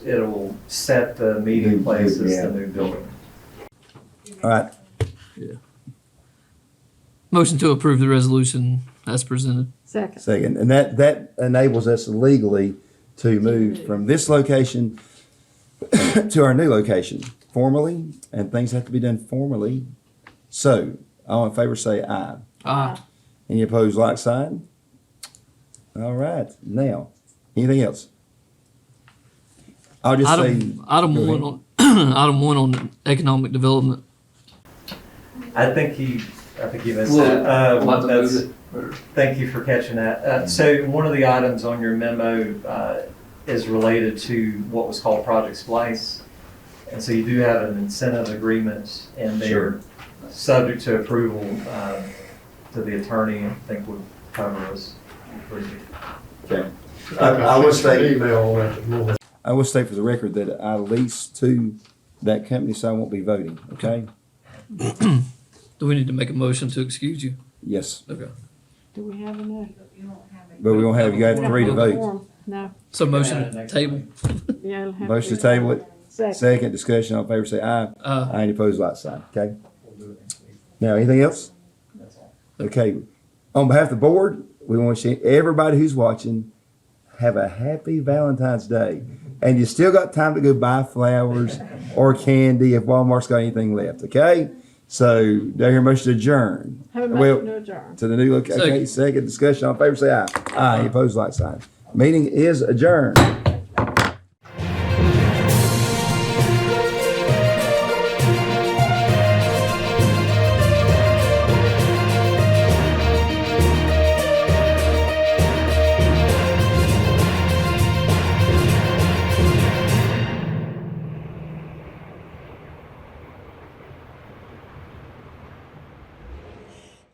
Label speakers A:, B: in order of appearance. A: it'll set the meeting
B: New-
A: place
B: new-
A: as
B: yeah.
A: the new building.
B: All right,
C: Motion to approve the resolution as presented.
D: Second.
B: second, and that, that enables us legally to move
D: move.
B: from this location to our new location formally, and things have to be done formally. So, all in favor say aye.
C: Aye.
A: Ah.
B: Any opposed, like sign? All right, now, anything else? I'll just say,
C: Item, item
B: go
C: one on, item one on economic development.
A: I think you, I think you missed
E: Well,
A: that. Uh,
E: We'll have to
A: that's-
E: move it. or-
A: Thank you for catching that.
B: Mm.
A: Uh, So one of the items on your memo uh, is related to what was called Project Splice. And so you do have an incentive agreement and they're subject to approval um, to the attorney, I think would cover us.
B: I- I would say-
F: Email on that this morning.
B: I will state for the record that I lease to that company, so I won't be voting, okay?
C: Do we need to make a motion to excuse you?
B: Yes,
C: Okay.
D: Do we have enough?
B: but we don't have, you got three to vote.
D: No,
C: So
A: Yeah,
C: motion to
A: next
C: table.
D: yeah, it'll have to.
B: Motion
D: be-
B: to table it,
D: Second.
B: second discussion, all in favor say aye.
C: Uh,
B: Aye, any opposed, like sign, okay? Now, anything else? Okay, on behalf of the board, we want to say, everybody who's watching, have a happy Valentine's Day. And you still got time to go buy flowers or candy if Walmart's got anything left, okay? So, do I hear a motion to adjourn
D: Have a
B: Well-
D: motion to adjourn.
B: to the new location? Okay, second discussion, all in favor, say aye. Aye, any opposed, like sign. Meeting is adjourned.